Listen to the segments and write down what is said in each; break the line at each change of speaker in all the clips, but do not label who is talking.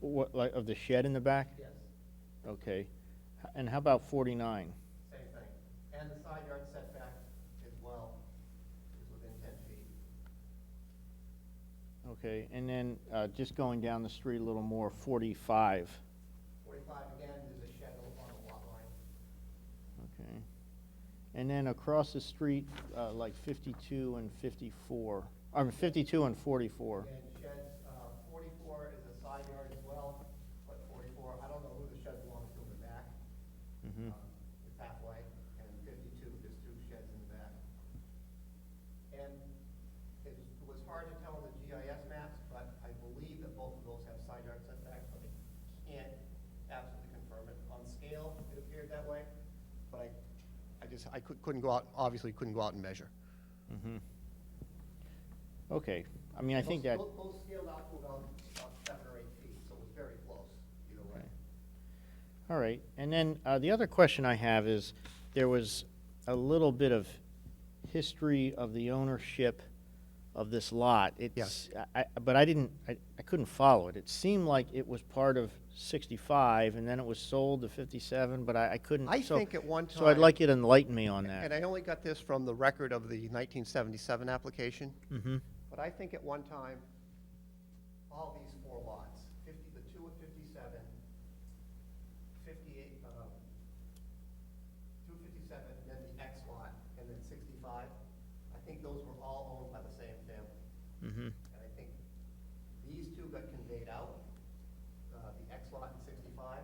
what, like, of the shed in the back?
Yes,
Okay. H- And how about forty-nine?
same thing. And the side yard setback as well is within ten feet.
Okay, and then, uh, just going down the street a little more, forty-five,
Forty-five, again, there's a shed on the lot line.
okay? And then across the street, uh, like fifty-two and fifty-four, I mean, fifty-two and forty-four.
And sheds, uh, forty-four is a side yard as well, but forty-four, I don't know who the shed belongs to in the back.
Mhm.
um, The pathway, and fifty-two, there's two sheds in the back. And it was hard to tell on the GIS maps, but I believe that both of those have side yard setbacks, but I can't absolutely confirm it. On scale, it appeared that way, but I, I just, I cou- couldn't go out, obviously couldn't go out and measure.
Mhm. Okay, I mean, I think that.
Both, both scaled out to about, about seven or eight feet, so it was very close, either way.
Okay. All right, and then uh, the other question I have is, there was a little bit of history of the ownership of this lot. It's, I, I- but I didn't, I I couldn't follow it. It seemed like it was part of 65, and then it was sold to 57, but I I couldn't.
I
so-
think at one
So I'd
time-
like you to enlighten me on
And
that.
I only got this from the record of the nineteen seventy-seven application.
Mhm.
But I think at one time, all these four lots, fifty, the two at fifty-seven, fifty-eight, um, two fifty-seven, then the X lot, and then sixty-five, I think those were all owned by the same family.
Mhm.
And I think these two got conveyed out, uh, the X lot and sixty-five.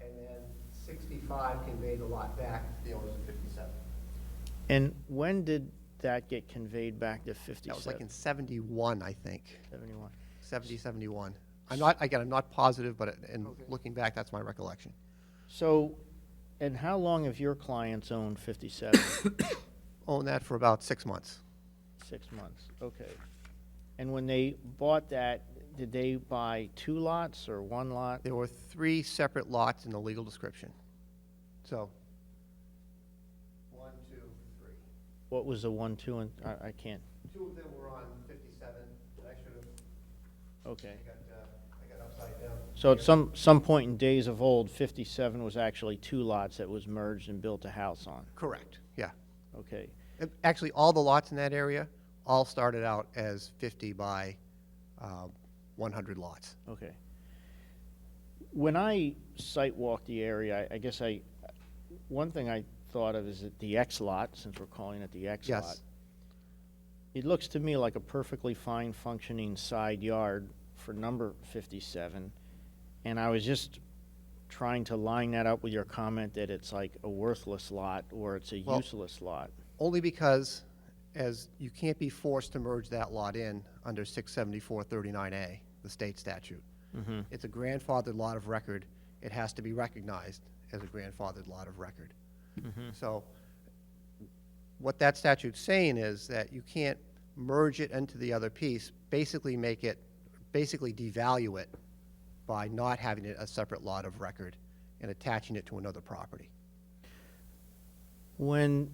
And then sixty-five conveyed the lot back to the owners of fifty-seven.
And when did that get conveyed back to 57?
That was like in seventy-one, I think.
71.
70, 71. I'm not, again, I'm not positive, but in
Okay.
looking back, that's my recollection.
So, and how long have your clients owned 57?
Owned that for about six months.
Six months, okay. And when they bought that, did they buy two lots or one lot?
There were three separate lots in the legal description. So. One, two, three.
What was the one, two, and, I, I can't,
Two of them were on 57, that I should have,
okay.
I got, uh, I got upside down.
So at some, some point in days of old, fifty-seven was actually two lots that was merged and built a house on,
Correct, yeah.
okay?
Uh, Actually, all the lots in that area all started out as 50 by um, 100 lots.
Okay. When I site walked the area, I, I guess I, one thing I thought of is that the X lot, since we're calling it the X
Yes.
lot. It looks to me like a perfectly fine functioning side yard for number fifty-seven. And I was just trying to line that up with your comment that it's like a worthless lot or it's a
Well-
useless lot.
Only because, as you can't be forced to merge that lot in under 67439A, the state statute.
Mm-hmm.
It's a grandfathered lot of record. It has to be recognized as a grandfathered lot of record.
Mm-hmm.
So what that statute's saying is that you can't merge it into the other piece, basically make it, basically devalue it by not having it a separate lot of record and attaching it to another property.
When,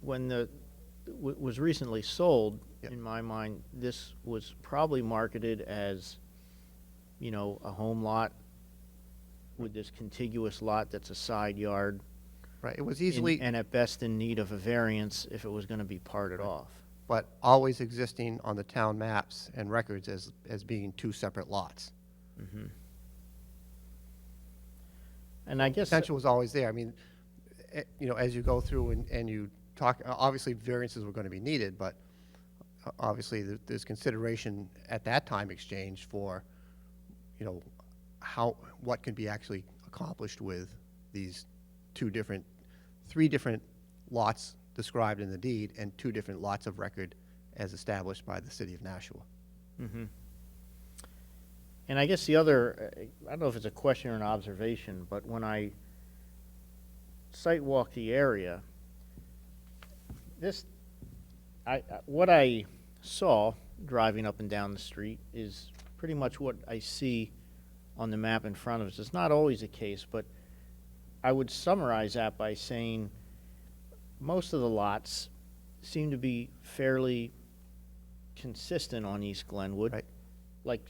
when the, w- was recently sold,
Yeah.
in my mind, this was probably marketed as, you know, a home lot with this contiguous lot that's a side yard.
Right, it was
and-
easily.
And at best in need of a variance if it was gonna be parted off.
but always existing on the town maps and records as, as being two separate lots.
And I guess,
Potential was always there. I mean, eh, you know, as you go through and, and you talk, o- obviously variances were going to be needed, but o- obviously there- there's consideration at that time exchanged for, you know, how, what can be actually accomplished with these two different, three different lots described in the deed and two different lots of record as established by the city of Nashua.
and I guess the other, uh, I don't know if it's a question or an observation, but when I site walk the area, this, I, I- what I saw driving up and down the street is pretty much what I see on the map in front of us. It's not always the case, but I would summarize that by saying most of the lots seem to be fairly consistent on East Glenwood.
Right.
Like